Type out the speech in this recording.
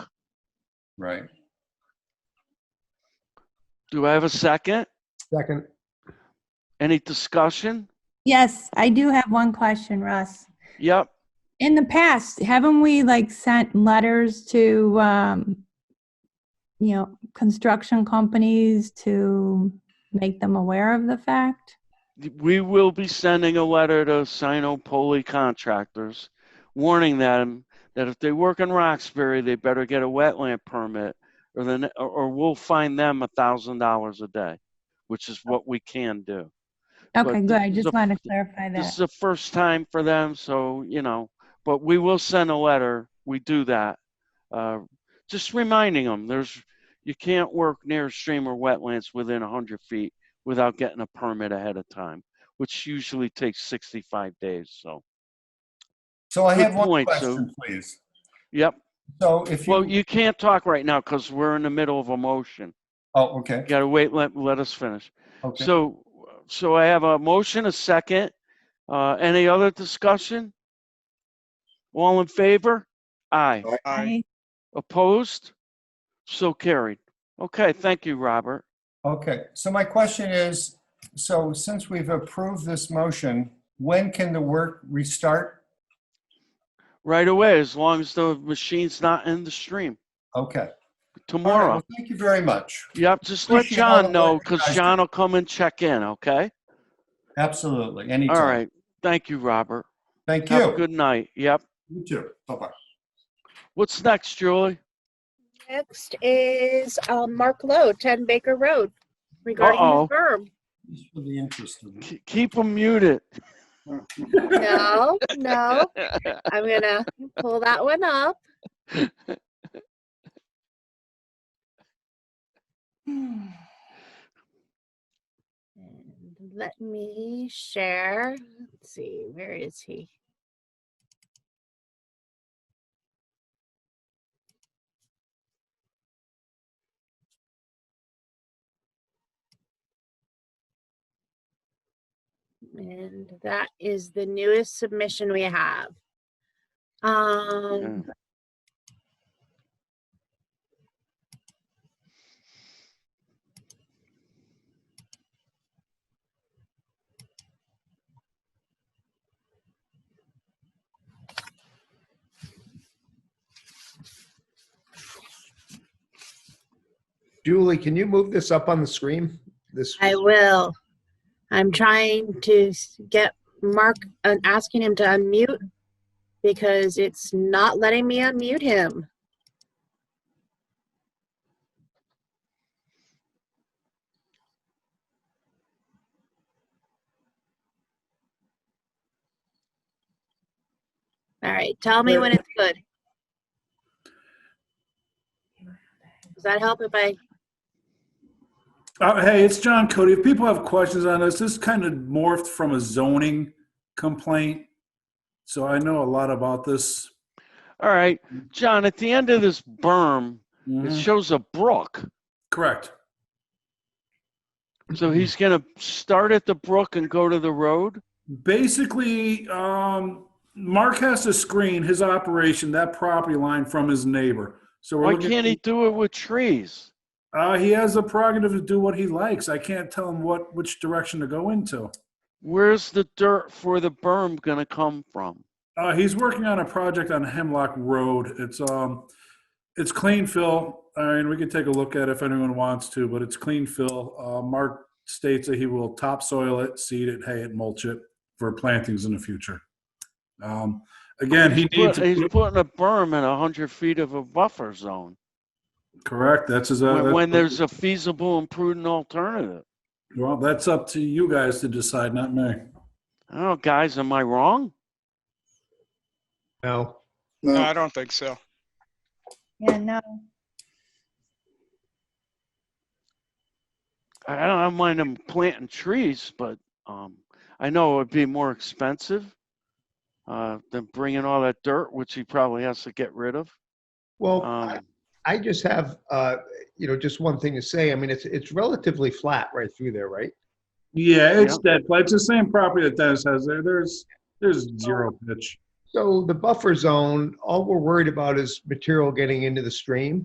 right. Do I have a second? Second, Any discussion? Yes, I do have one question, Russ. Yep. In the past, haven't we like sent letters to, um, you know, construction companies to make them aware of the fact? We will be sending a letter to Sinopoli contractors warning them that if they work in Roxbury, they better get a wetland permit or then, or- or we'll fine them a thousand dollars a day, which is what we can do. But Okay, good. this I is just a- wanted to clarify This that. is the first time for them, so, you know, but we will send a letter. We do that. Uh, just reminding them there's, you can't work near a stream or wetlands within 100 feet without getting a permit ahead of time, which usually takes 65 days. So, So I Good have one point, so- question, please. yep. So if Well, you, you can't talk right now because we're in the middle of a motion. oh, okay, You gotta wait, let, let us finish. okay. So, so I have a motion, a second. Uh, any other discussion? All in favor? Aye. Aye. Opposed? So carried. Okay, thank you, Robert. Okay, so my question is, so since we've approved this motion, when can the work restart? Right away, as long as the machine's not in the stream Okay. All right, tomorrow. well, Thank you very much. Yep, just let Appreciate all the John work know you because guys do. John will come and check in, okay? Absolutely, All anytime. right, thank you, Robert. Thank Have a you. good night. Yep. You too. Bye-bye. What's next, Julie? Next is um, Mark Lowe, 10 Baker Road, regarding Uh-oh. his berm. Just for the interest of it. K- Keep him muted. No, no, I'm gonna pull that one up. And Let me share. Let's see, where is he? And that is the newest submission we have. Mm. Um, Julie, can you move this up on the screen? This, I will. I'm trying to s- get Mark and asking him to unmute because it's not letting me unmute him. All right, tell me when it's good. Does that help if I? Uh, hey, it's John Cody. If people have questions on this, this kind of morphed from a zoning complaint. So I know a lot about this. All right, John, at the end of this berm, it Mhm. shows a brook. Correct. So he's Mm-hmm. gonna start at the brook and go to the road? Basically, um, Mark has to screen his operation, that property line from his neighbor. So we're Why looking- can't he do it with trees? Uh, he has the prerogative to do what he likes. I can't tell him what, which direction to go into. Where's the dirt for the berm gonna come from? Uh, he's working on a project on Hemlock Road. It's um, it's clean fill. I mean, we can take a look at it if anyone wants to, but it's clean fill. Uh, Mark states that he will topsoil it, seed it, hay it, mulch it for plantings in the future. Um, again, he He's needs put- He's putting a berm in a hundred feet of a buffer zone, correct. That's his. Uh, when, that's- when there's a feasible and prudent alternative. well, that's up to you guys to decide, not me. Oh, guys, am I wrong? no, No, I don't think so. Yeah, no. I I don't, I don't mind him planting trees, but, um, I know it'd be more expensive, uh, than bringing all that dirt, which he probably has to get rid of. well, I- Um, I just have, uh, you know, just one thing to say. I mean, it's, it's relatively flat right through there, right? Yeah, it's dead. But it's the same property that Dennis has there. There's there's zero pitch. So the buffer zone, all we're worried about is material getting into the stream.